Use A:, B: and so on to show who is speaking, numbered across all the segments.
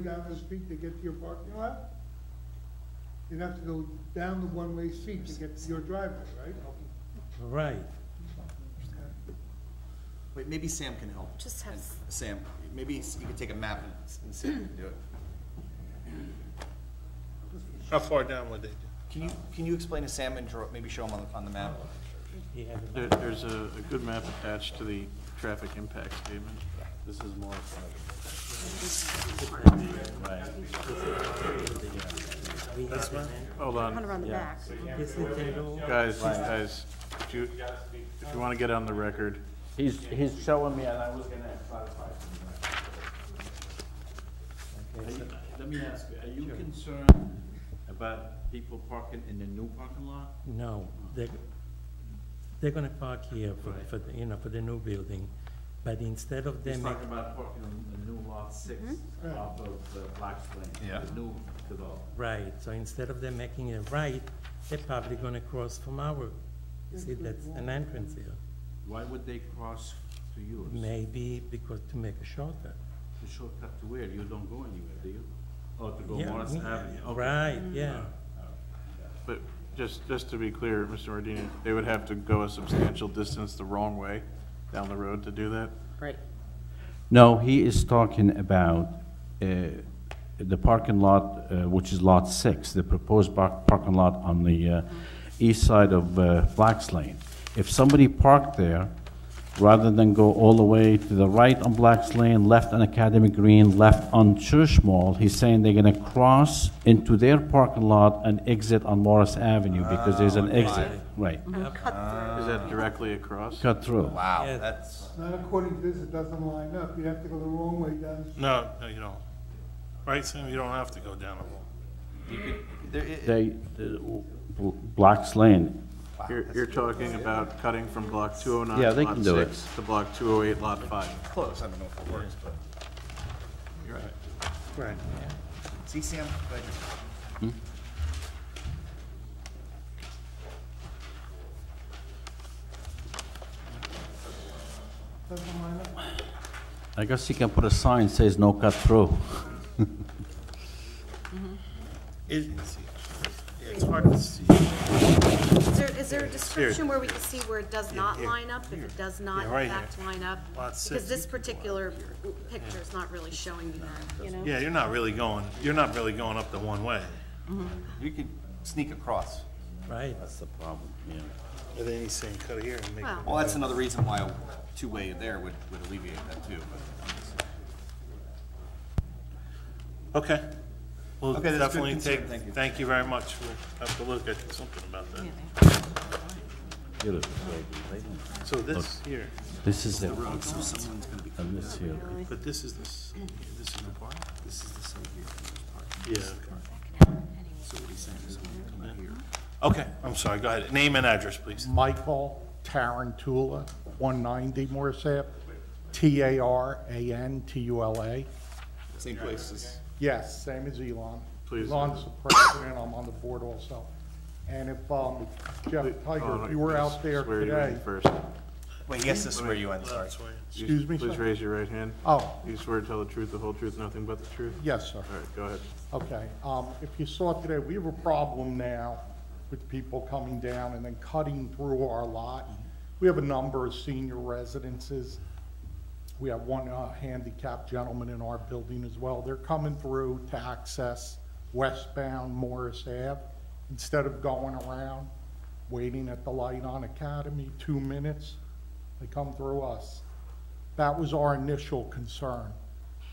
A: down the street to get to your parking lot? You'd have to go down the one-way street to get to your driveway, right?
B: Right.
C: Wait, maybe Sam can help.
D: Just have,
C: Sam, maybe you could take a map and, and Sam can do it.
E: How far down would they do?
C: Can you, can you explain to Sam and draw, maybe show him on the, on the map?
B: He has a-
F: There, there's a, a good map attached to the traffic impact statement. This is more.
B: This one,
F: Hold
D: one
F: on,
D: around the back.
B: this is the road.
F: guys, guys, if you, if you wanna get on the record,
G: He's, he's showing me, and I was gonna clarify. something.
B: Okay, so-
G: Let me ask you, are you concerned about people parking in the new parking lot?
B: No, they, they're gonna park here for, for, the- you know, for the new building, but instead of
G: He's
B: them, make-
G: talking about parking on the new lot six off of the Black's Lane.
C: Yeah.
G: The new development.
B: right, so instead of them making a right, they're probably gonna cross from our, you see, that's an entrance here.
G: Why would they cross to yours?
B: Maybe because to make a shortcut.
G: The shortcut to where? You don't go anywhere, do you? Oh, to go
B: Yeah,
G: Morris
B: me-
G: Avenue, okay.
B: Right, yeah,
F: but just, just to be clear, Mr. Mardini, they would have to go a substantial distance the wrong way down the road to do that.
D: Right.
H: No, he is talking about uh, the parking lot, uh, which is Lot 6, the proposed par- parking lot on the uh, east side of uh, Black's Lane. If somebody parked there, rather than go all the way to the right on Black's Lane, left on Academy Green, left on Church Mall, he's saying they're going to cross into their parking lot and exit on Morris Avenue because there's an exit. Right,
F: Is that directly across?
H: cut through.
C: Wow,
B: Yeah.
C: that's,
A: Not according to this, it doesn't line up. You'd have to go the wrong way down the street.
E: No, no, you don't. Right, Sam, you don't have to go down a wall.
C: there, it,
H: They, the- Black's Lane,
F: You're, you're talking about cutting from block two oh nine,
H: Yeah, they can
F: lot
H: do it.
F: six, to block two oh eight, lot five.
C: close, I don't know if it works, but. You're right.
B: right.
C: See, Sam, Glad you're-
A: Doesn't line up.
H: I guess you can put a sign says no cut through.
E: It- It's it's hard to see.
D: Is there, is there a description where we can see where it does not line up, if it does not
E: Yeah, right
D: in fact line up?
E: Lot six.
D: Because this particular picture is not really showing you that, you know?
E: Yeah, you're not really going, you're not really going up the one way.
C: you could sneak across.
B: Right,
H: That's the problem, yeah.
E: And then he's saying, cut here and make.
D: Well,
C: Well, that's another reason why a two-way there would, would alleviate that too, but.
E: Okay. We'll
C: Okay, that's good
E: definitely
C: concern,
E: take,
C: thank you.
E: thank you very much. We'll have to look at something about that. So this here,
H: This is it. And this here.
E: but this is this, this is the park? This is the side here. Yeah, okay. Okay, I'm sorry, go ahead. Name and address, please.
I: Michael Tarantula, 190 Morris Ave, T-A-R-A-N-T-U-L-A.
C: Same place as.
I: Yes, same as Elon.
F: Please.
I: Elon's the president, I'm on the board also. And if um, Jeff Tiger, if you were out there
F: Swear you in
I: today,
F: First.
C: Wait, yes, this is where you end, sorry.
E: That's why-
I: excuse me,
F: Please
I: sir?
F: raise your right hand.
I: Oh,
F: You swear to tell the truth, the whole truth, nothing but the truth?
I: yes, sir.
F: All right, go ahead.
I: Okay, um, if you saw today, we have a problem now with people coming down and then cutting through our lot. We have a number of senior residences. We have one uh, handicapped gentleman in our building as well. They're coming through to access westbound Morris Ave. Instead of going around, waiting at the light on Academy, two minutes, they come through us. That was our initial concern.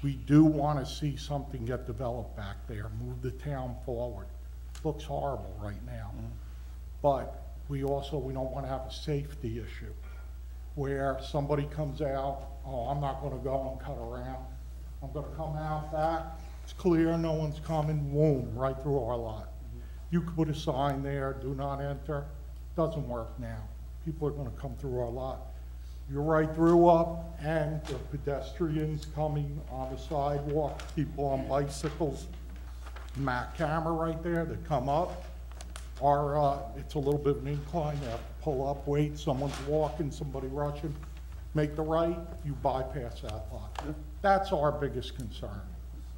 I: We do want to see something get developed back there, move the town forward. Looks horrible right now. But we also, we don't want to have a safety issue where somebody comes out, oh, I'm not going to go and cut around. I'm going to come out back, it's clear, no one's coming, boom, right through our lot. You could put a sign there, do not enter, doesn't work now. People are going to come through our lot. You're right through up, and the pedestrians coming on the sidewalk, people on bicycles. My camera right there, they come up, are, uh, it's a little bit of an incline, they have to pull up, wait, someone's walking, somebody rushing, make the right, you bypass that lot. That's our biggest concern.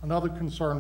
I: Another concern